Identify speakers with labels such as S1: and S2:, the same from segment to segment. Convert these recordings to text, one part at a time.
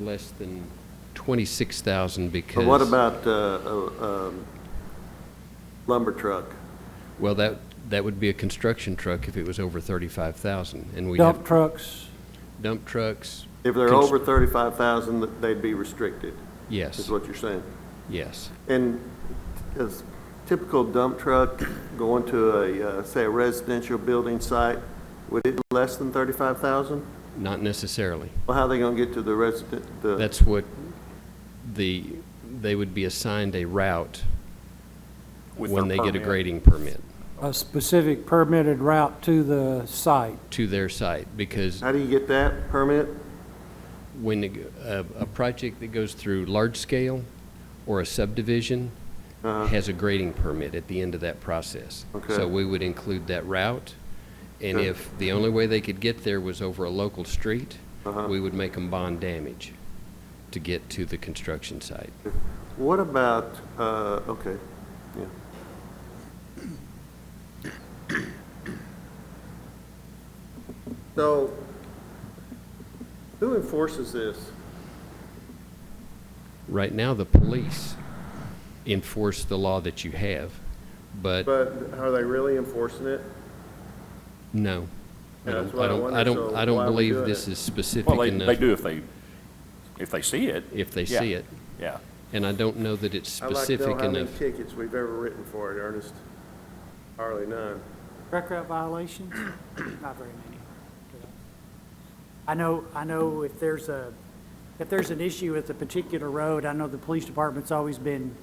S1: less than 26,000 because...
S2: But what about uh, uh, um, lumber truck?
S1: Well, that, that would be a construction truck if it was over 35,000, and we
S3: Dump
S1: have
S3: trucks,
S1: dump trucks.
S2: If they're
S1: Cons-
S2: over 35,000, th- they'd be restricted, is
S1: Yes,
S2: what you're saying.
S1: yes.
S2: And is typical dump truck going to a, uh, say, a residential building site, would it be less than 35,000?
S1: Not necessarily.
S2: Well, how are they going to get to the resident, the,
S1: That's what the, they would be assigned a route
S4: With
S1: when
S4: their
S1: they get a
S4: permit.
S1: grading permit
S3: a specific permitted route to the site.
S1: to their site, because
S2: how do you get that permit?
S1: when it- a, a project that goes through large scale or a subdivision has a grading permit at the end of that process.
S2: Uh-huh. Okay.
S1: So we would include that route, and
S2: Sure.
S1: if the only way they could get there was over a local street,
S2: Uh-huh.
S1: we would make them bond damage to get to the construction site.
S2: What about, uh, okay, yeah. So, who enforces this?
S1: Right now, the police enforce the law that you have, but
S2: But are they really enforcing it?
S1: no. I
S2: Yeah,
S1: don't-
S2: that's what I
S1: I don't, I
S2: wondered,
S1: don't,
S2: so
S1: I
S2: why
S1: don't
S2: are we
S1: believe
S2: doing
S1: this
S2: it?
S1: is specific
S4: Well, they,
S1: enough.
S4: they do if they, if they see it.
S1: If they
S4: Yeah.
S1: see it,
S4: Yeah.
S1: and I don't know that it's
S2: I'd like
S1: specific
S2: to know how many
S1: enough.
S2: tickets we've ever written for it, Ernest. Hardly none.
S5: Rec rep violations? Not very many. I know, I know if there's a, if there's an issue with a particular road, I know the police department's always been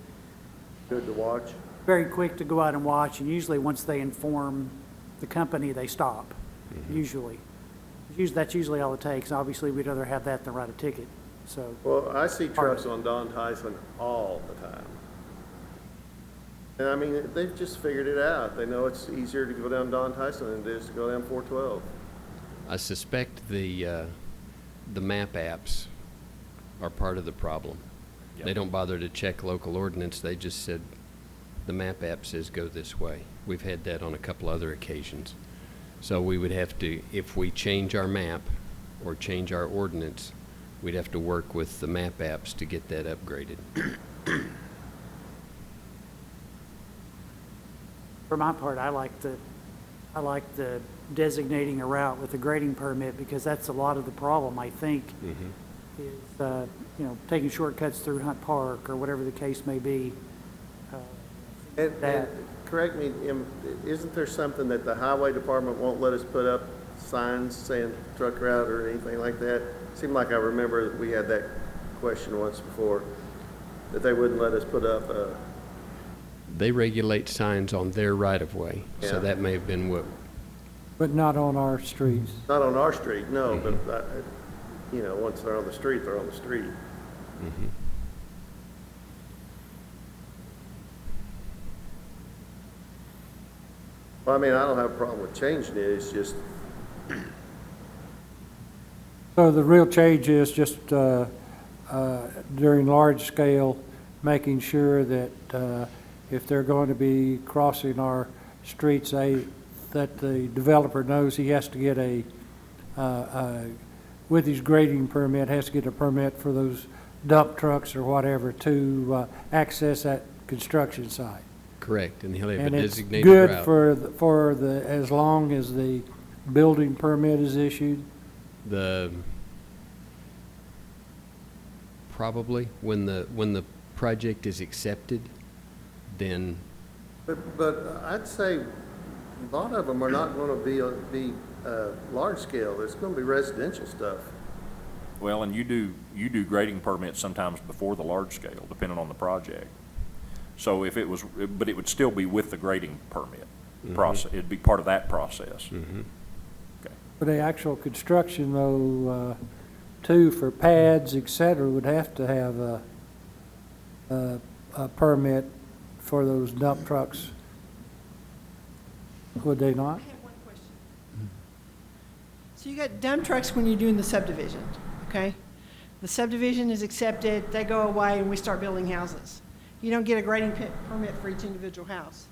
S2: Good to watch.
S5: very quick to go out and watch, and usually once they inform the company, they stop,
S1: Mm-hmm.
S5: usually. Usually, that's usually all it takes. Obviously, we'd rather have that than write a ticket, so.
S2: Well, I see trucks on Don Tyson all the time. And I mean, they've just figured it out. They know it's easier to go down Don Tyson than it is to go down four twelve.
S1: I suspect the, uh, the map apps are part of the problem. They
S4: Yep.
S1: don't bother to check local ordinance, they just said, the map app says go this way. We've had that on a couple other occasions. So we would have to, if we change our map or change our ordinance, we'd have to work with the map apps to get that upgraded.
S5: For my part, I like the, I like the designating a route with a grading permit, because that's a lot of the problem, I think, is, uh, you know, taking shortcuts through Hunt Park, or whatever the case may be.
S2: And, and,
S5: That-
S2: correct me, am- isn't there something that the highway department won't let us put up signs saying truck route or anything like that? Seemed like I remember that we had that question once before, that they wouldn't let us put up, uh,
S1: They regulate signs on their right-of-way,
S2: Yeah.
S1: so that may have been what
S3: But not on our streets.
S2: not on our street, no, but, uh, you know, once they're on the street, they're on the street. Well, I mean, I don't have a problem with changing it, it's just,
S3: So the real change is just uh, uh, during large scale, making sure that uh, if they're going to be crossing our streets, they, that the developer knows he has to get a, uh, uh, with his grading permit, has to get a permit for those dump trucks or whatever to uh, access that construction site.
S1: correct, and he'll have a
S3: And it's
S1: designated
S3: good
S1: route.
S3: for, the- for the, as long as the building permit is issued.
S1: the, probably, when the, when the project is accepted, then,
S2: But, but I'd say a lot of them are not going to be, be uh, large scale. It's going to be residential stuff.
S4: Well, and you do, you do grading permits sometimes before the large scale, depending on the project. So if it was, but it would still be with the grading permit
S1: Mm-hmm.
S4: process. It'd be part of that process.
S3: For the actual construction though, uh, too, for pads, et cetera, would have to have a, a, a permit for those dump trucks. Would they not?
S6: I have one question. So you got dump trucks when you're doing the subdivision, okay? The subdivision is accepted, they go away, and we start building houses. You don't get a grading pe- permit for each individual house,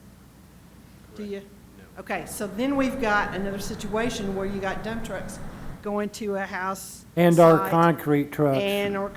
S6: do you? Okay, so then we've got another situation where you got dump trucks going to a house.
S3: And our
S6: site,
S3: concrete trucks.
S6: And our